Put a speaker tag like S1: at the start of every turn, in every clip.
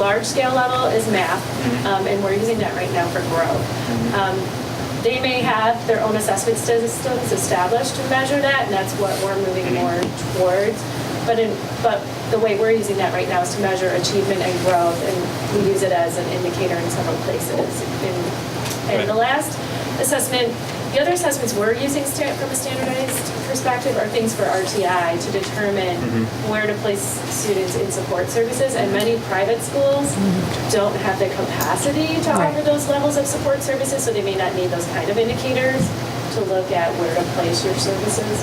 S1: large scale level is math, um, and we're using that right now for grow. Um, They may have their own assessment systems established to measure that, and that's what we're moving more towards. But in, but the way we're using that right now is to measure achievement and growth, and we use it as an indicator in several places. In- And the
S2: Right.
S1: last assessment, the other assessments we're using sta- from a standardized perspective are things for RTI to determine
S2: Mm-hmm.
S1: where to place students in support services, and many private schools
S2: Mm-hmm.
S1: don't have the capacity to
S3: Right.
S1: offer those levels of support services, so they may not need those kind of indicators to look at where to place your services.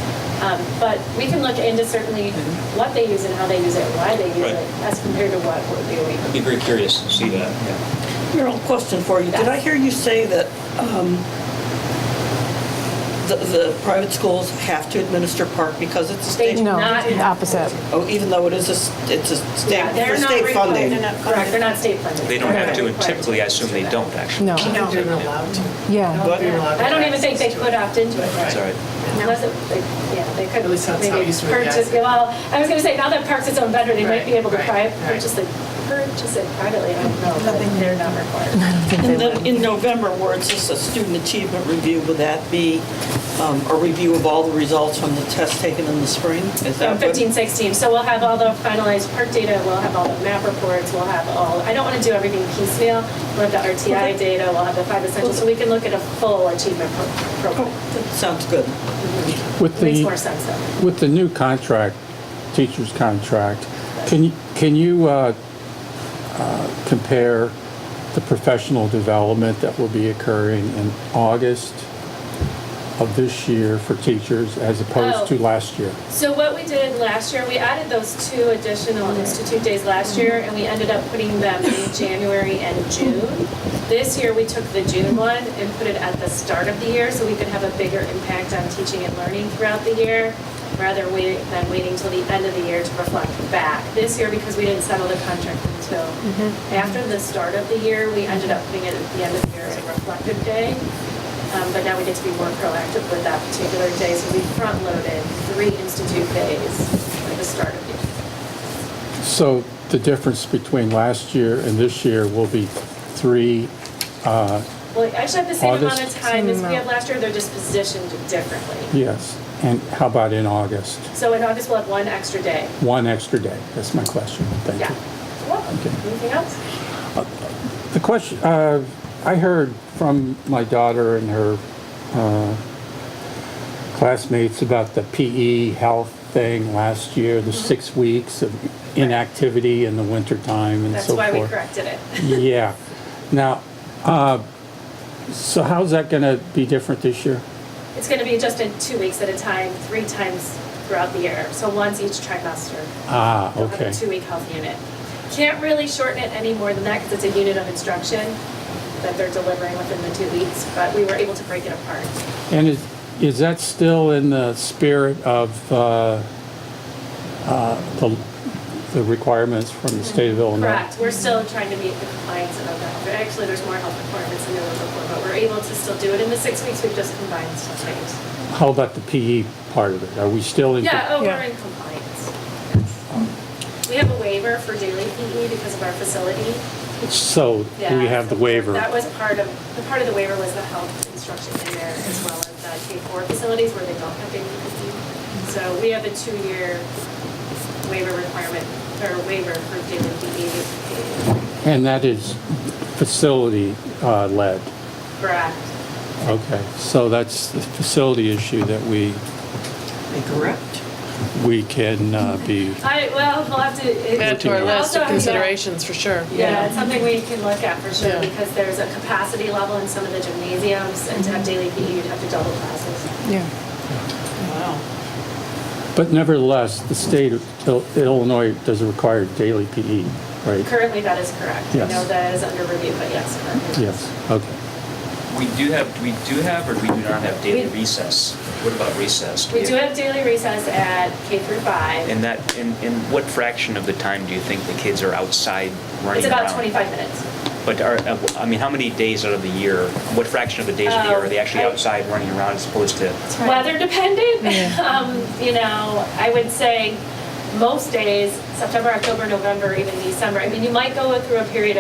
S1: Um, But we can look into certainly what they use and how they use it, why they use
S2: Mm-hmm. Right.
S1: it, as compared to what we're doing.
S2: I'd be very curious to see that, yeah.
S4: Meryl, question for you. Did I hear you say that um, the the private schools have to administer park because it's a
S1: They
S4: state?
S1: do
S3: No,
S1: not.
S3: the opposite.
S4: Oh, even though it is a, s- it's a
S1: Yeah,
S4: state,
S1: they're
S4: for
S1: not
S4: state funding?
S5: required to-
S1: Correct, they're not state funded.
S2: They don't have to,
S1: They're
S2: and
S1: not required to
S2: typically, I assume they
S1: do that.
S2: don't, actually.
S3: No.
S5: No, they're not allowed to.
S3: Yeah.
S5: But they're allowed to
S1: I don't
S5: have
S1: even think they
S5: access to
S1: could
S5: it.
S1: opt into it, right?
S2: It's all right.
S1: Unless it, like, yeah, they could.
S5: At least that's how
S1: maybe
S5: it used to be, yeah.
S1: purchase- Well, I was gonna say, now that Parks its own vendor, they might be
S5: Right,
S1: able to
S5: right,
S1: pri-
S5: right.
S1: purchase it, purchase it privately, I don't know, but they're not required.
S4: And then in November, where it's just a student achievement review, would that be um, a review of all the results from the test taken in the spring? Is
S1: So
S4: that
S1: 15,
S4: what?
S1: 16, so we'll have all the finalized park data, we'll have all the map reports, we'll have all, I don't want to do everything piecemeal, we'll have the RTI data, we'll have the five essentials, so we can look at a full achievement pro- program.
S4: Sounds good.
S6: With
S1: Makes more
S6: the,
S1: sense though.
S6: with the new contract, teacher's contract, can, you- can you uh, uh, compare the professional development that will be occurring in August of this year for teachers
S1: Oh.
S6: as opposed to last year?
S1: So what we did last year, we added those two additional institute days last year, and we ended up putting them in January and June. This year, we took the June one and put it at the start of the year, so we could have a bigger impact on teaching and learning throughout the year, rather wait- than waiting till the end of the year to reflect back. This year, because we didn't settle the contract until after the start of the year, we ended up putting it at the end of the year as a reflective day. Um, But now we get to be more proactive with that particular day, so we front-loaded three institute days at the start of the year.
S6: So the difference between last year and this year will be three, uh,
S1: Well, we actually have the same amount of
S6: August?
S1: time as we had last year, they're just positioned differently.
S6: yes, and how about in August?
S1: So in August, we'll have one extra day.
S6: One extra day, that's my question, thank
S1: Yeah.
S6: you.
S1: Welcome.
S6: Okay.
S1: Anything else?
S6: The question uh, I heard from my daughter and her uh, classmates about the PE health thing last year,
S1: Mm-hmm.
S6: the six weeks of inactivity in the wintertime and
S1: That's
S6: so forth.
S1: why we corrected it.
S6: Yeah. Now, uh, so how's that going to be different this year?
S1: It's going to be just in two weeks at a time, three times throughout the year, so once each trimester.
S6: Ah,
S1: We'll have
S6: okay.
S1: a two-week health unit. Can't really shorten it any more than that because it's a unit of instruction that they're delivering within the two weeks, but we were able to break it apart.
S6: And is, is that still in the spirit of uh, uh, the the requirements from the state of Illinois?
S1: Mm-hmm. Correct, we're still trying to meet the compliance of that, but actually, there's more health requirements than there was before, but we're able to still do it in the six weeks, we've just combined some things.
S6: How about the PE part of it? Are we still in?
S1: Yeah, oh, we're
S3: Yeah.
S1: in compliance. Yes. We have a waiver for daily PE because of our facility.
S6: So
S1: Yeah,
S6: we have the waiver.
S1: That was part of, the part of the waiver was the health instruction in there as well as the K-4 facilities where they don't have daily PE. So we have a two-year waiver requirement, or waiver for daily PE.
S6: And that is facility uh, led.
S1: Correct.
S6: Okay, so that's the facility issue that we,
S4: Correct.
S6: we can uh, be,
S1: I, well, we'll have to. it-
S6: Add to our
S1: we'll
S6: list
S1: also have to-
S5: for sure.
S1: Yeah, it's something we can look at for sure
S5: Yeah.
S1: because there's a capacity level in some of the gymnasiums and to have daily PE, you'd have to double classes.
S3: Yeah.
S4: Wow.
S6: but nevertheless, the state of Il- Illinois does require daily PE, right?
S1: Currently, that is correct. I
S6: Yes.
S1: know that is under review, but yes, correct.
S6: Yes, okay.
S2: We do have, we do have, or we do not have daily
S1: We-
S2: recess? What about recess?
S1: We do have daily recess at K through five.
S2: And that, and, and what fraction of the time do you think the kids are outside running around?
S1: It's about twenty-five minutes.
S2: But are, uh, I mean, how many days out of the year, what fraction of the days of the year are they actually
S1: Oh, I-
S2: outside running around as opposed to?
S1: Weather dependent, um, you know, I would say most days, September, October, November, even December. I mean, you might go through a period